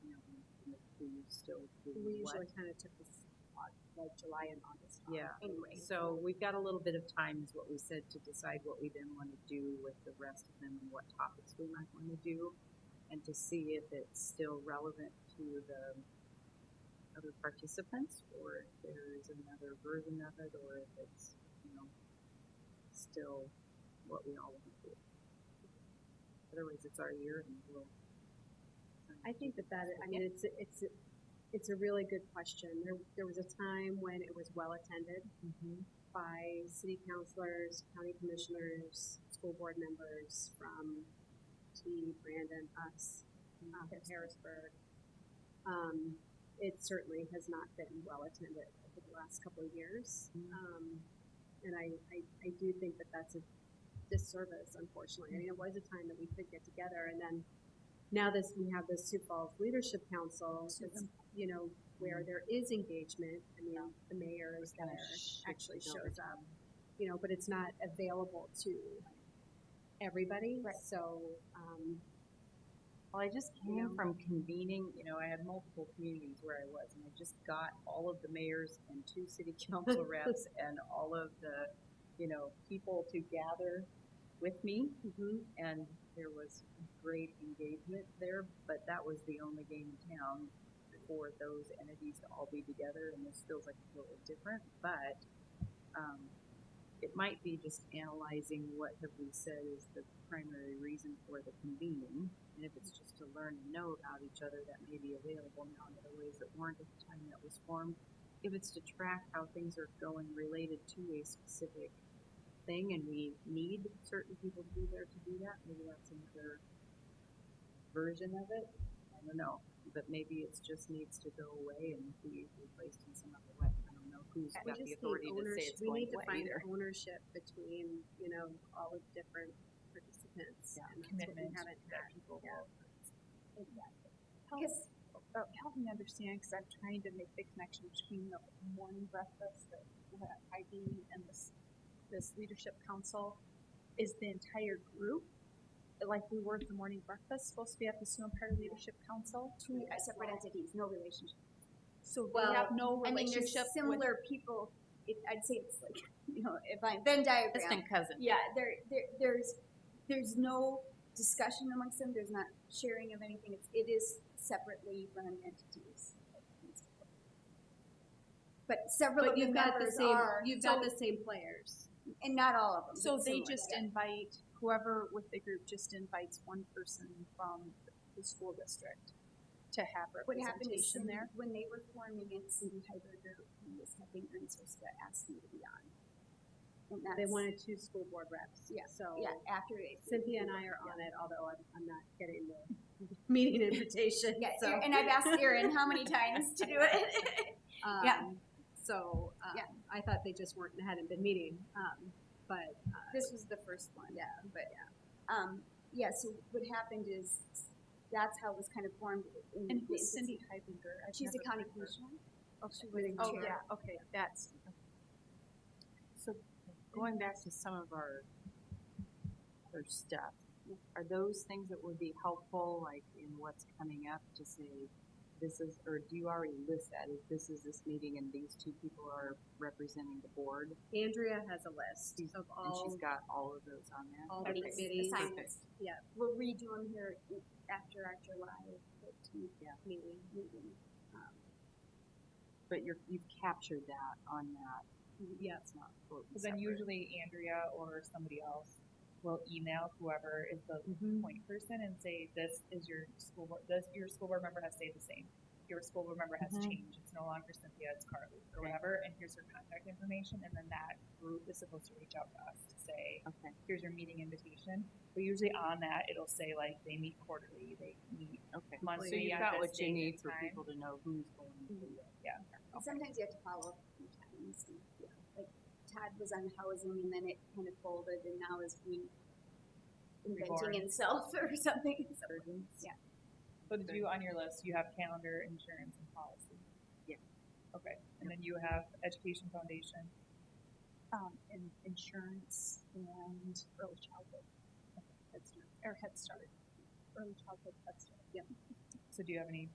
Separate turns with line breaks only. still do
We
what?
usually kind of took this, au- like July and August off
Yeah.
anyway.
So we've got a little bit of time is what we said to decide what we then want to do with the rest of them and what topics we might want to do. And to see if it's still relevant to the other participants or if there is another version of it or if it's, you know, still what we all want to do. Otherwise, it's our year and we'll.
I think that that, I mean, it's, a- it's, a- it's a really good question. There, there was a time when it was well attended Mm-hmm. by city councilors, county commissioners, school board members from T, Brandon, us,
Ah,
uh, from Harrisburg. Um, it certainly has not been well attended over the last couple of years.
Mm.
Um, and I, I, I do think that that's a disservice, unfortunately. I mean, it was a time that we could get together and then now this, we have this Sioux Falls Leadership Council, that's, you know, where there is engagement. I mean, the mayor is
Oh
there, actually shows up, you know, but it's not available to everybody. So, um,
Well, I just
You
came
know?
from convening, you know, I had multiple communities where I was, and I just got all of the mayors and two city council reps and all of the, you know, people to gather with me,
mhm.
and there was great engagement there, but that was the only game in town for those entities to all be together, and this feels like a little different, but, um, it might be just analyzing what have we said is the primary reason for the convening, and if it's just to learn and know about each other, that may be available now in other ways that weren't at the time that was formed. If it's to track how things are going related to a specific thing, and we need certain people to be there to do that, maybe that's another version of it. I don't know, but maybe it's just needs to go away and be replaced in some other way. I don't know who's
We
got the
just need
authority to say
ownership,
it's
we
going
need to
away
find
either.
ownership between, you know, all the different participants.
Yeah,
and that's what we
commitment
haven't
that
had.
people
Yeah.
will-
Because, uh, help me understand, because I'm trying to make the connection between the morning breakfast, the, the IB and this, this leadership council. Is the entire group, like we were at the morning breakfast, supposed to be at the Snow Empire Leadership Council?
two uh, separate entities, no relationship.
So we
Well,
have no
I mean, there's
relationship with,
similar people, it, I'd say it's like, you know, if I, Venn diagram.
cousin.
Yeah, there, there, there's, there's no discussion amongst them, there's not sharing of anything, it's, it is separately run entities. But several of
But
the
you've got the
members
same,
are,
you've got the same players.
and not all of them.
so
but
they
similar.
just invite, whoever with the group just invites one person from the school district to have
What happened is
representation
Cindy-
there?
when they were forming it, Cindy Heiberger was having Ernst Rosetta ask me to be on. And
They
that's,
wanted two school board reps.
Yeah,
So
yeah, after it.
Cynthia and I are on it, although I'm, I'm not getting the meeting invitation,
Yeah,
so.
and I've asked Erin how many times to do it. yeah.
um, So, uh,
Yeah.
I thought they just weren't, hadn't been meeting, um, but
This was the first one. Yeah, but yeah. Um, yeah, so what happened is that's how it was kind of formed. In
And
the
who's Cindy
infancy.
Heidinger? I've
She's a
never
county
heard of her.
commissioner.
Oh, she was in
Oh,
chair.
yeah, okay, that's,
So going back to some of our other stuff, are those things that would be helpful, like in what's coming up to say, this is, or do you already list that, if this is this meeting and these two people are representing the board?
Andrea has a list of
And she's
all,
got all of those on there?
all the
Everybody's
committees.
assignments.
Yeah.
We'll redo them here in- after our July fifteenth meeting. meeting. Um,
But you're, you've captured that on that.
Yeah.
It's not.
Because then usually Andrea or somebody else will email whoever is the point person and say, this is your school board, this, your school board member has stayed the same. Your school board member has
Mhm.
changed. It's no longer Cynthia, it's Carly or whatever, and here's her contact information. And then that group is supposed to reach out to us to say,
Okay,
here's your meeting invitation. But usually on that, it'll say like, they meet quarterly, they meet
okay.
monthly.
So you've
at
got
this
what you
date and
need for
time. Mm-hmm.
people to know who's going to do it.
And sometimes you have to follow up a few times. and, yeah, Like Todd was on housing and then it kind of folded and now is
Reborn.
reinventing himself or something. So, Yeah.
So do you, on your list, you have calendar, insurance, and policy?
Yeah.
Okay, and then you have education foundation,
um, in insurance and early childhood. Head Start, or Head Start, early childhood Head Start.
so do you have any